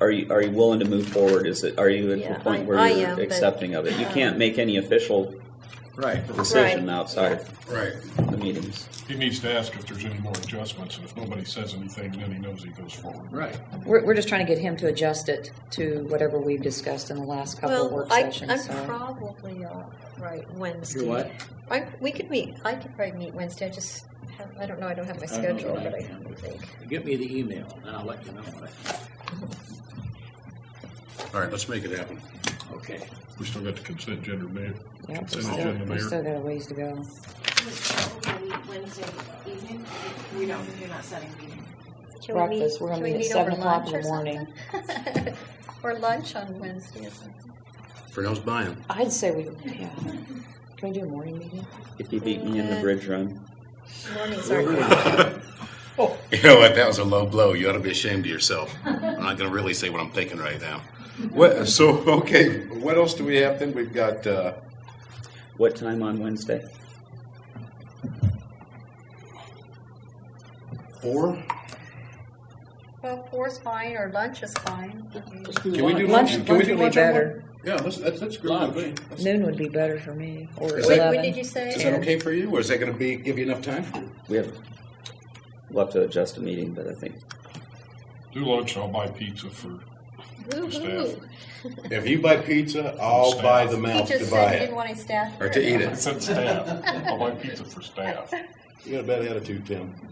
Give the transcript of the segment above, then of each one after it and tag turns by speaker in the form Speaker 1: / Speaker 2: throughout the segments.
Speaker 1: are you, are you willing to move forward? Is it, are you at
Speaker 2: Yeah,
Speaker 1: the point
Speaker 2: I-
Speaker 1: where
Speaker 2: I
Speaker 1: you're
Speaker 2: am, but, um,
Speaker 1: accepting of it? You can't make any official
Speaker 3: Right.
Speaker 1: decision
Speaker 2: Right.
Speaker 1: outside
Speaker 3: Right.
Speaker 1: the meetings.
Speaker 4: He needs to ask if there's any more adjustments, and if nobody says anything, then he knows he goes forward.
Speaker 3: Right.
Speaker 5: We're, we're just trying to get him to adjust it to whatever we've discussed in the last couple of
Speaker 2: Well,
Speaker 5: work
Speaker 2: I, I'm
Speaker 5: sessions, so.
Speaker 2: probably off, right, Wednesday.
Speaker 3: You're what?
Speaker 2: I, we could meet, I could probably meet Wednesday, I just have, I don't know, I don't have my
Speaker 3: I don't know
Speaker 2: schedule,
Speaker 3: what I
Speaker 2: but I
Speaker 3: am.
Speaker 2: think.
Speaker 3: Get me the email and I'll let you know. what I-
Speaker 6: All right, let's make it happen.
Speaker 3: Okay.
Speaker 4: We still got the consent gender ma-
Speaker 5: Yeah, we
Speaker 4: consent
Speaker 5: still,
Speaker 4: agenda,
Speaker 5: we still
Speaker 4: Mayor.
Speaker 5: got a ways to go.
Speaker 7: Wednesday evening, we don't, you're not setting a meeting.
Speaker 2: Can we meet-
Speaker 5: Breakfast, we're gonna
Speaker 2: can we
Speaker 5: meet at
Speaker 2: meet over
Speaker 5: 7 o'clock in
Speaker 2: lunch
Speaker 5: the
Speaker 2: or
Speaker 5: morning.
Speaker 2: something? Or lunch on Wednesday or something.
Speaker 6: Purnell's buying.
Speaker 5: I'd say we, yeah. Can we do a morning meeting?
Speaker 1: If you beat me in the
Speaker 2: Uh,
Speaker 1: bridge run,
Speaker 2: Mornings are good.
Speaker 6: You know what? That was a low blow. You ought to be ashamed of yourself. I'm not going to really say what I'm thinking right now. What, so, okay, what else do we have then? We've got, uh,
Speaker 1: what time on Wednesday?
Speaker 6: four?
Speaker 2: Well, four's fine, or lunch is fine.
Speaker 6: Can we do
Speaker 5: Lunch-
Speaker 6: lunch? Can we
Speaker 5: lunch
Speaker 6: do
Speaker 5: would be
Speaker 6: lunch on one?
Speaker 5: better.
Speaker 6: Yeah, that's, that's, that's great. That's-
Speaker 5: Noon would be better for me, or
Speaker 2: Wait,
Speaker 6: Is that-
Speaker 2: When did
Speaker 5: eleven.
Speaker 2: you say?
Speaker 6: Is that okay for you, or is that going to be, give you enough time?
Speaker 1: We have, we'll have to adjust a meeting, but I think
Speaker 4: Do lunch, I'll buy pizza for,
Speaker 6: uh,
Speaker 2: Woo-hoo.
Speaker 6: If you buy pizza, I'll buy the
Speaker 2: He
Speaker 6: mouth to
Speaker 2: just said
Speaker 6: buy
Speaker 2: he didn't
Speaker 6: it,
Speaker 2: want any staff.
Speaker 6: or to eat
Speaker 4: I
Speaker 6: it.
Speaker 4: said staff, I'll buy pizza for staff.
Speaker 6: You got a bad attitude, Tim.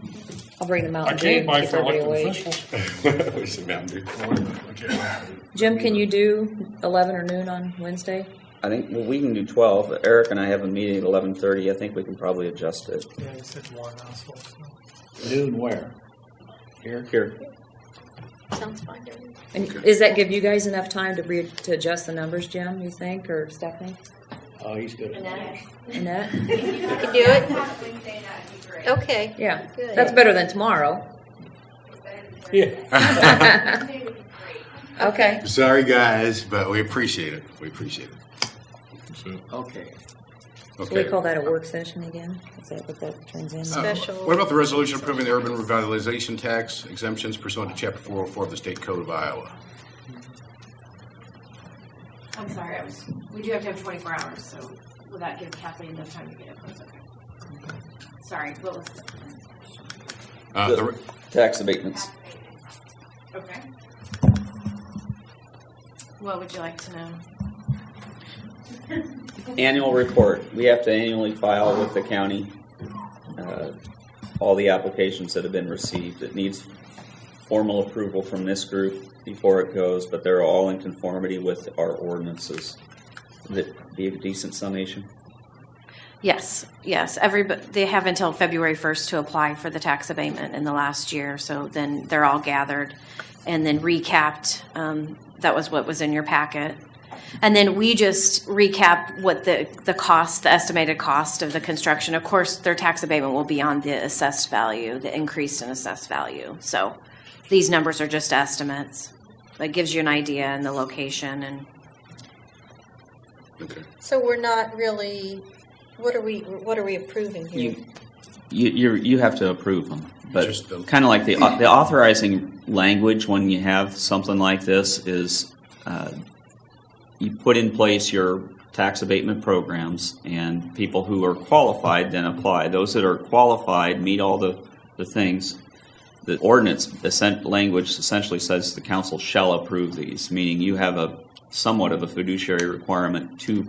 Speaker 5: I'll bring the
Speaker 4: I
Speaker 5: Mountain Dew.
Speaker 4: can't buy
Speaker 5: keep
Speaker 4: for
Speaker 5: everybody
Speaker 4: elected
Speaker 5: awake.
Speaker 4: officials.
Speaker 6: We should not do-
Speaker 4: No, I can't buy for-
Speaker 5: Jim, can you do eleven or noon on Wednesday?
Speaker 1: I think, well, we can do twelve. Eric and I have a meeting at eleven thirty. I think we can probably adjust it.
Speaker 8: Yeah, you said one household. so.
Speaker 3: Noon where? Here?
Speaker 1: Here,
Speaker 2: Sounds fine to me.
Speaker 5: And does that give you guys enough time to re, to adjust the numbers, Jim, you think, or Stephanie?
Speaker 3: Oh, he's good.
Speaker 5: Annette?
Speaker 7: You
Speaker 2: can do it.
Speaker 7: Wednesday night, would be great.
Speaker 2: Okay.
Speaker 5: Yeah,
Speaker 2: Good.
Speaker 5: that's better than tomorrow.
Speaker 3: Yeah.
Speaker 5: Okay.
Speaker 6: Sorry, guys, but we appreciate it. We appreciate it.
Speaker 4: So,
Speaker 3: Okay.
Speaker 5: Should we
Speaker 6: Okay.
Speaker 5: call that a work session again? Is that what that turns
Speaker 6: Uh,
Speaker 5: into?
Speaker 2: Special-
Speaker 6: What about the resolution approving the urban revitalization tax exemptions pursuant to chapter four oh four of the state code of Iowa?
Speaker 7: I'm sorry, I was, we do have to have twenty-four hours, so will that give Kathleen enough time to get it? That's okay. Sorry, what was
Speaker 6: Uh, the re-
Speaker 1: tax abatements.
Speaker 7: Okay. What would you like to know?
Speaker 1: Annual report. We have to annually file with the county, uh, all the applications that have been received. It needs formal approval from this group before it goes, but they're all in conformity with our ordinances. Would it be a decent summation?
Speaker 7: Yes, yes. Every, they have until February 1st to apply for the tax abatement in the last year, so then they're all gathered and then recapped. Um, That was what was in your packet. And then we just recap what the, the cost, the estimated cost of the construction. Of course, their tax abatement will be on the assessed value, the increase in assessed value. So these numbers are just estimates. That gives you an idea and the location and
Speaker 6: okay.
Speaker 2: So we're not really, what are we, what are we approving here?
Speaker 1: You, you, you're- you have to approve them, but
Speaker 6: Just the-
Speaker 1: kind of like the, the authorizing language when you have something like this is, uh, you put in place your tax abatement programs, and people who are qualified then apply. Those that are qualified meet all the, the things. The ordinance, the sen- language essentially says the council shall approve these, meaning you have a, somewhat of a fiduciary requirement to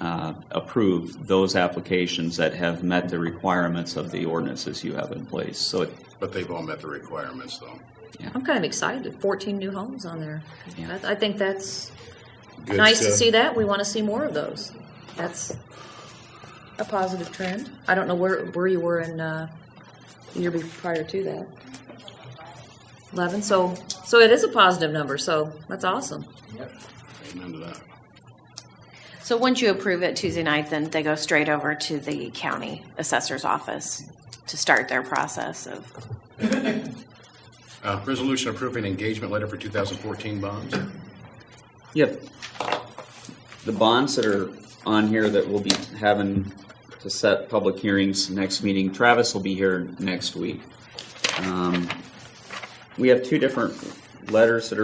Speaker 1: uh, approve those applications that have met the requirements of the ordinances you have in place. So, it-
Speaker 6: But they've all met the requirements, though.
Speaker 5: I'm kind of excited, fourteen new homes on there.
Speaker 1: Yeah.
Speaker 5: I, I think that's
Speaker 6: Good
Speaker 5: nice to
Speaker 6: stuff.
Speaker 5: see that, we want to see more of those. That's a positive trend. I don't know where, where you were in, uh, the year be- prior to that. Eleven, so, so it is a positive number, so that's awesome.
Speaker 6: Amen to that.
Speaker 7: So once you approve it Tuesday night, then they go straight over to the county assessor's office to start their process of,
Speaker 6: Uh, resolution approving engagement letter for two thousand fourteen bonds.
Speaker 1: yep. The bonds that are on here that we'll be having to set public hearings next meeting, Travis will be here next week. Um, We have two different letters that are.